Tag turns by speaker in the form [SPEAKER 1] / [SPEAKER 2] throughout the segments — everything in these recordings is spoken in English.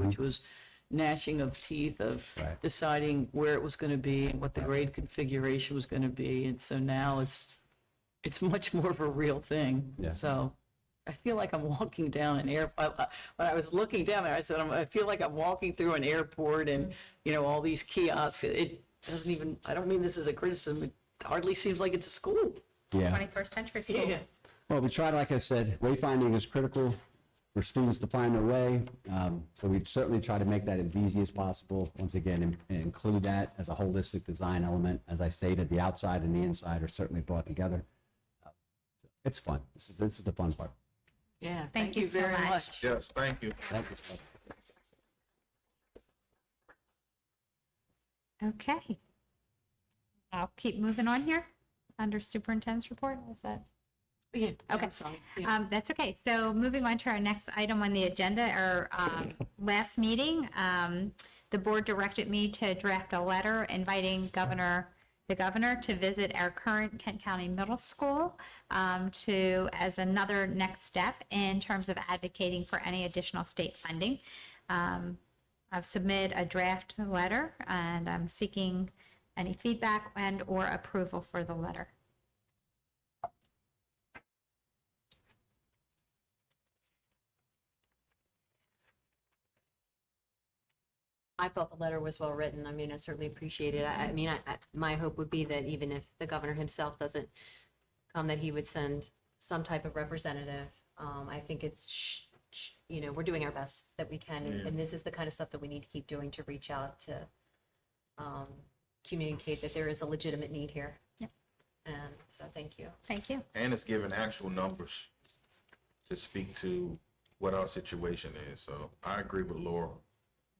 [SPEAKER 1] which was gnashing of teeth of
[SPEAKER 2] Mm-hmm. Right.
[SPEAKER 1] deciding where it was going to be and what the grade configuration was going to be. And so now it's, it's much more of a real thing.
[SPEAKER 2] Yeah.
[SPEAKER 1] So I feel like I'm walking down an air, I- I- when I was looking down there, I said, "I'm- I feel like I'm walking through an airport
[SPEAKER 2] Mm-hmm.
[SPEAKER 1] and, you know, all these kiosks. It doesn't even, I don't mean this as a criticism, it hardly seems like it's a school.
[SPEAKER 2] Yeah.
[SPEAKER 3] 21st century school.
[SPEAKER 2] Well, we tried, like I said, wayfinding is critical for students to find their way. Um, So we certainly try to make that as easy as possible. Once again, in- and include that as a holistic design element. As I stated, the outside and the inside are certainly brought together. Uh, It's fun. This is, this is the fun part.
[SPEAKER 1] Yeah.
[SPEAKER 3] Thank you so
[SPEAKER 1] very
[SPEAKER 3] much.
[SPEAKER 4] Yes, thank you.
[SPEAKER 2] Thank you.
[SPEAKER 3] Okay. I'll keep moving on here under superintendent's report. Is that?
[SPEAKER 1] Yeah,
[SPEAKER 3] Okay.
[SPEAKER 1] I'm sorry. Yeah.
[SPEAKER 3] Um, that's okay. So moving on to our next item on the agenda, our um, last meeting, um, the board directed me to draft a letter inviting Governor, the governor to visit our current Kent County Middle School um, to, as another next step in terms of advocating for any additional state funding. Um, I've submitted a draft letter and I'm seeking any feedback and or approval for the letter.
[SPEAKER 5] I thought the letter was well written. I mean, I certainly appreciate it. I, I mean, I, I, my hope would be that even if the governor himself doesn't come, that he would send some type of representative. Um, I think it's, sh- sh- you know, we're doing our best that we can, and, and this is the kind of stuff that we need to keep doing to reach out to um, communicate that there is a legitimate need here.
[SPEAKER 3] Yep.
[SPEAKER 5] And so, thank you.
[SPEAKER 3] Thank you.
[SPEAKER 4] And it's giving actual numbers to speak to what our situation is. So I agree with Laura.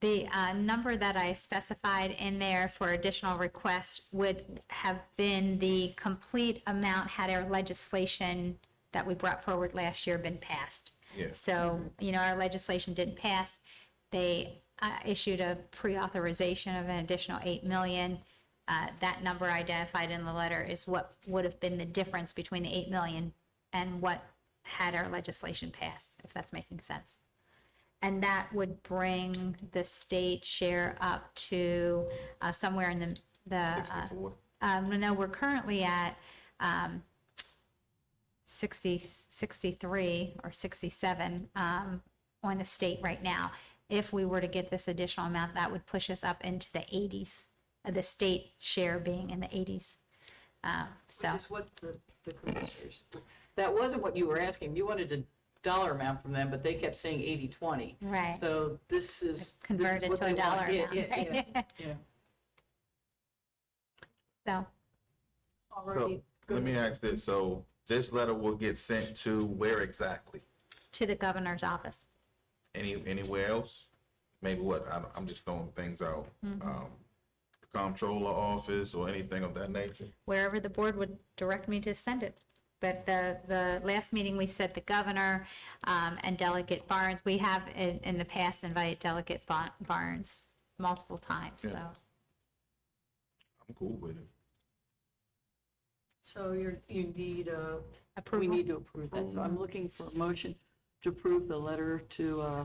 [SPEAKER 3] The uh, number that I specified in there for additional requests would have been the complete amount had our legislation that we brought forward last year been passed.
[SPEAKER 4] Yeah.
[SPEAKER 3] So, you know, our legislation didn't pass. They uh, issued a pre-authorization of an additional 8 million. Uh, That number identified in the letter is what would have been the difference between the 8 million and what had our legislation passed, if that's making sense. And that would bring the state share up to uh, somewhere in the, the, uh,
[SPEAKER 4] Sixty-four.
[SPEAKER 3] um, no, we're currently at, um, 60, 63 or 67, um, on the state right now. If we were to get this additional amount, that would push us up into the eighties, uh, the state share being in the eighties. Uh, so,
[SPEAKER 1] Which is what the, the commissioners, that wasn't what you were asking. You wanted a dollar amount from them, but they kept saying eighty, twenty.
[SPEAKER 3] right,
[SPEAKER 1] So this is.
[SPEAKER 3] convert it to a dollar amount.
[SPEAKER 1] Yeah,
[SPEAKER 3] right?
[SPEAKER 1] yeah,
[SPEAKER 3] So,
[SPEAKER 1] yeah.
[SPEAKER 4] Let me ask this. So this letter will get sent to where exactly?
[SPEAKER 3] to the governor's office.
[SPEAKER 4] Any, anywhere else? Maybe what? I'm, I'm just throwing things out. Um, comptroller office or anything of that nature?
[SPEAKER 3] wherever the board would direct me to send it. But the, the last meeting, we said the governor um, and Delegate Barnes, we have in, in the past invited Delegate Ba- Barnes multiple times, so.
[SPEAKER 4] Yeah. I'm cool with it.
[SPEAKER 1] So you're, you need a, we
[SPEAKER 3] Approval.
[SPEAKER 1] need to approve that. So I'm looking for a motion to approve the letter to, uh,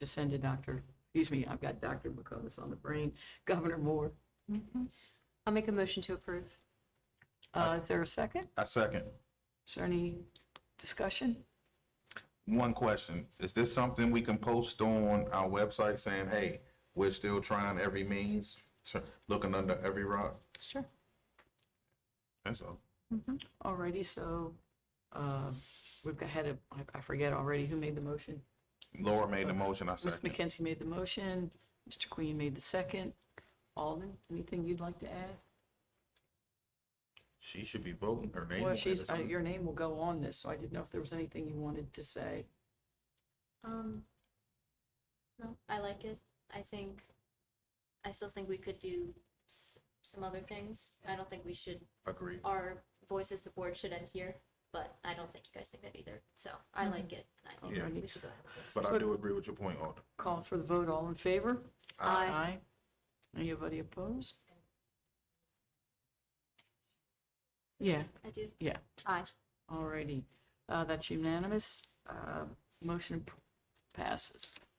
[SPEAKER 1] to send to Dr., excuse me, I've got Dr. McComas on the brain, Governor Moore.
[SPEAKER 5] I'll make a motion to approve.
[SPEAKER 1] Uh, is there a second?
[SPEAKER 4] I second.
[SPEAKER 1] Is there any discussion?
[SPEAKER 4] One question. Is this something we can post on our website saying, hey, we're still trying every means, tr- looking under every rock?
[SPEAKER 3] Sure.
[SPEAKER 4] That's all.
[SPEAKER 1] Alrighty, so, uh, we've got, had a, I- I forget already who made the motion.
[SPEAKER 4] Laura made the motion, I
[SPEAKER 1] Ms.
[SPEAKER 4] second.
[SPEAKER 1] McKenzie made the motion, Mr. Queen made the second. Alden, anything you'd like to add?
[SPEAKER 4] She should be voting her name.
[SPEAKER 1] Well,
[SPEAKER 4] on it or
[SPEAKER 1] she's, uh,
[SPEAKER 4] something.
[SPEAKER 1] your name will go on this, so I didn't know if there was anything you wanted to say.
[SPEAKER 6] Um, no, I like it. I think, I still think we could do s- some other things. I don't think we should,
[SPEAKER 4] Agreed.
[SPEAKER 6] our voices, the board should end here, but I don't think you guys think that either. So I like it. I think
[SPEAKER 4] Yeah.
[SPEAKER 6] we should go ahead with it.
[SPEAKER 4] But I do agree with your point, Alden.
[SPEAKER 1] Call for the vote, all in favor?
[SPEAKER 5] Aye.
[SPEAKER 1] Anybody opposed? Yeah,
[SPEAKER 6] I do.
[SPEAKER 1] yeah,
[SPEAKER 6] Aye.
[SPEAKER 1] alrighty. Uh, that's unanimous. Uh, motion p- passes.